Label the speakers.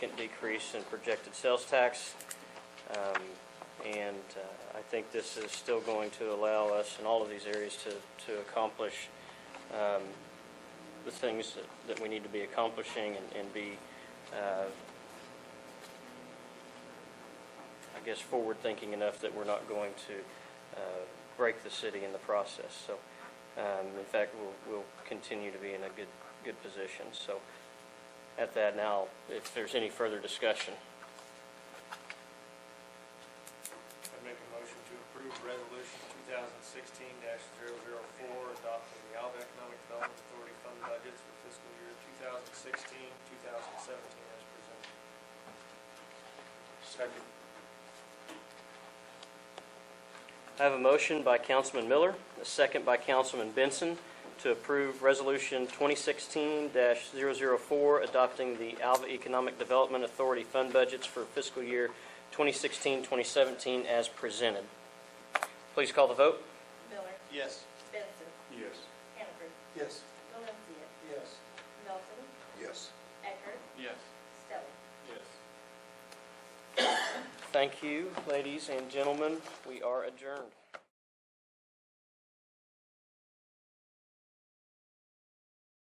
Speaker 1: significant decrease in projected sales tax. Um, And uh, I think this is still going to allow us in all of these areas to, to accomplish um, the things that, that we need to be accomplishing and, and be, uh, I guess, forward-thinking enough that we're not going to uh, break the city in the process. So, um, in fact, we'll, we'll continue to be in a good, good position. So at that now, if there's any further discussion.
Speaker 2: I make a motion to approve resolution two thousand sixteen 4 adopting the Alva Economic Development Authority fund budgets for fiscal year 2016-2017 as presented. Second.
Speaker 1: I have a motion by Councilman Miller, a second by Councilman Benson to approve Resolution 2016-004, adopting the Alva Economic Development Authority fund budgets for fiscal year 2016-2017 as presented. Please call the vote.
Speaker 3: Miller,
Speaker 2: Yes.
Speaker 3: Benson,
Speaker 2: Yes.
Speaker 3: Hannaford,
Speaker 2: Yes.
Speaker 3: Valencia,
Speaker 2: Yes.
Speaker 3: Melton,
Speaker 4: Yes.
Speaker 3: Eckert,
Speaker 2: Yes.
Speaker 3: Stelling.
Speaker 2: Yes.
Speaker 1: Thank you, ladies and gentlemen. We are adjourned.